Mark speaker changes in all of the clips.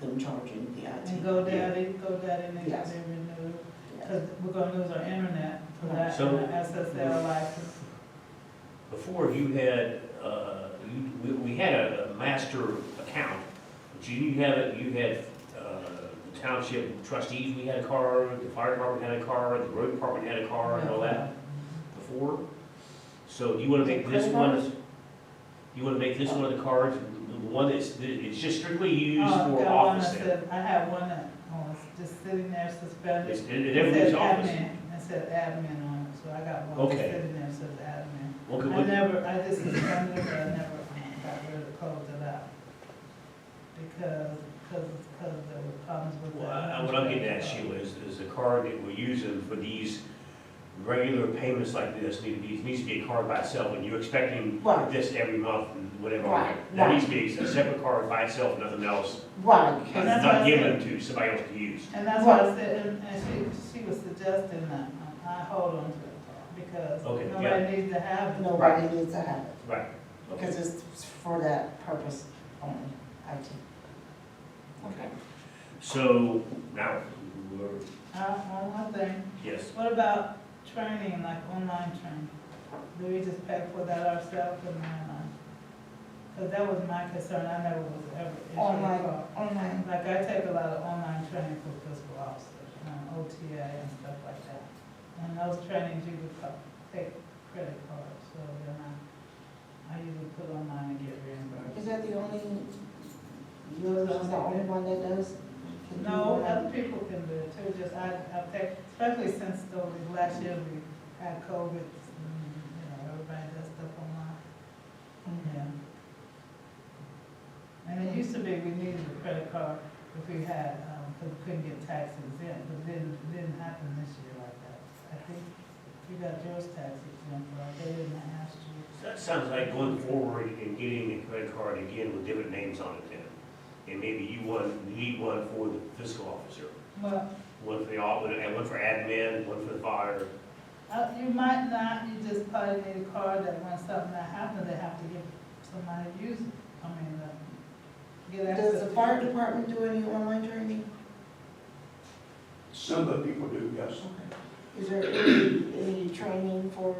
Speaker 1: them charging the IT.
Speaker 2: And GoDaddy, GoDaddy, and they got
Speaker 1: Yes.
Speaker 2: their renewed,
Speaker 1: Yeah.
Speaker 2: because we're gonna lose our internet for that,
Speaker 3: So-
Speaker 2: and the SSL license.
Speaker 3: Before you had, uh, you, we, we had a, a master account, but you didn't have it, you had, uh, the township trustees, we had a car, the fire department had a car, the road department had a car and all
Speaker 2: Uh,
Speaker 3: that before. So do you wanna make this one, you wanna make this one of the cards, the one that's, that it's just strictly used
Speaker 2: Oh,
Speaker 3: for
Speaker 2: that one
Speaker 3: office
Speaker 2: that
Speaker 3: then?
Speaker 2: said- I have one that, oh, it's just sitting there
Speaker 3: It's,
Speaker 2: suspended.
Speaker 3: it, it
Speaker 2: It
Speaker 3: everything's
Speaker 2: said
Speaker 3: office.
Speaker 2: admin. It said admin on it, so I got one that's
Speaker 3: Okay.
Speaker 2: sitting there, says admin.
Speaker 3: Okay,
Speaker 2: I
Speaker 3: what-
Speaker 2: never, I just suspended it, but I never got rid of, closed it out. Because, because, because there were problems with
Speaker 3: Well,
Speaker 2: that.
Speaker 3: I- what I'm getting at, Sheila, is, is the card that we're using for these regular payments like this, need to be, needs to be a card by itself, and you're expecting
Speaker 1: Right.
Speaker 3: this every month, and whatever.
Speaker 1: Right,
Speaker 3: That
Speaker 1: right.
Speaker 3: needs to be a separate card by itself, nothing else,
Speaker 1: Right,
Speaker 2: And that's
Speaker 3: not
Speaker 1: because,
Speaker 2: what
Speaker 3: not
Speaker 2: I
Speaker 3: given to somebody else to use.
Speaker 2: And that's what I said, and, and she, she was suggesting that, I I hold on to it, because
Speaker 3: Okay,
Speaker 2: nobody needs to have it.
Speaker 1: nobody needs to have it,
Speaker 3: Right. Okay.
Speaker 1: because it's for that purpose only, IT. Okay.
Speaker 3: So, now, we're,
Speaker 2: Uh, one more thing,
Speaker 3: yes,
Speaker 2: what about training, like online training? Do we just pay for that ourselves or not? Because that was my concern, I never was ever issued a
Speaker 1: Online,
Speaker 2: card.
Speaker 1: online,
Speaker 2: Like, I take a lot of online training for fiscal officers, um, OTA and stuff like that. And those trainings, you could co- take credit cards, so then I, I usually put online and get
Speaker 1: is
Speaker 2: reimbursed.
Speaker 1: that the only, yours is the only one that does? Can you
Speaker 2: No,
Speaker 1: do that?
Speaker 2: other people can do it too, just I, I take, especially since those last year we had COVID, mm, you know, everybody does stuff online,
Speaker 1: Mhm.
Speaker 2: yeah. And it used to be we needed a credit card if we had, um, 'cause we couldn't get taxes in, but then, it didn't happen this year like that. I think you got yours tax exempt, but they didn't ask you.
Speaker 3: that sounds like going forward and getting a credit card again with different names on it then. And maybe you want, you need one for the fiscal officer,
Speaker 2: Well,
Speaker 3: one for the, au- and one for admin, one for the fire,
Speaker 2: Uh, you might not, you just probably need a card that when something that happens, they have to give somebody to use it, I mean, uh, get access.
Speaker 1: Does the
Speaker 2: to
Speaker 1: fire
Speaker 2: it.
Speaker 1: department do any online training?
Speaker 4: Some of the people do, yes.
Speaker 1: Is there any, any training for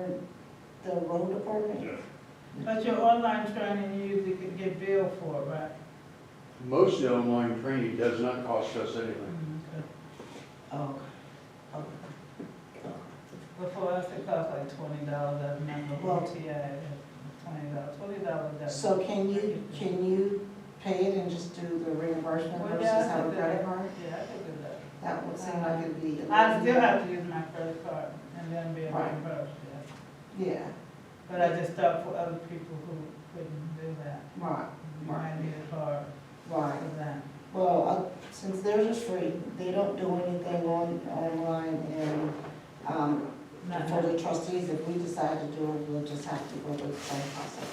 Speaker 1: the road department?
Speaker 3: you know.
Speaker 2: But your online training, you usually could get billed for, right?
Speaker 4: Most of the online training does not cost us anything.
Speaker 2: Mm, okay.
Speaker 1: Oh, oh,
Speaker 2: But for us, it costs like twenty dollars a month,
Speaker 1: Well-
Speaker 2: OTA, twenty dollars, twenty dollars.
Speaker 1: so can you, can you pay it and just do the reimbursement
Speaker 2: Well,
Speaker 1: versus
Speaker 2: yeah, I
Speaker 1: have a
Speaker 2: could do
Speaker 1: credit
Speaker 2: that.
Speaker 1: card?
Speaker 2: Yeah, I could do that.
Speaker 1: That would seem like it'd be.
Speaker 2: I still have to use my credit card and then be
Speaker 1: Right.
Speaker 2: reimbursed, yeah.
Speaker 1: Yeah,
Speaker 2: But I just thought for other people who couldn't do that.
Speaker 1: right,
Speaker 2: Mine is hard
Speaker 1: right.
Speaker 2: for that.
Speaker 1: Well, uh, since theirs is free, they don't do anything on, online and, um,
Speaker 2: Not-
Speaker 1: for the trustees, if we decide to do it, we'll just have to go through the same process.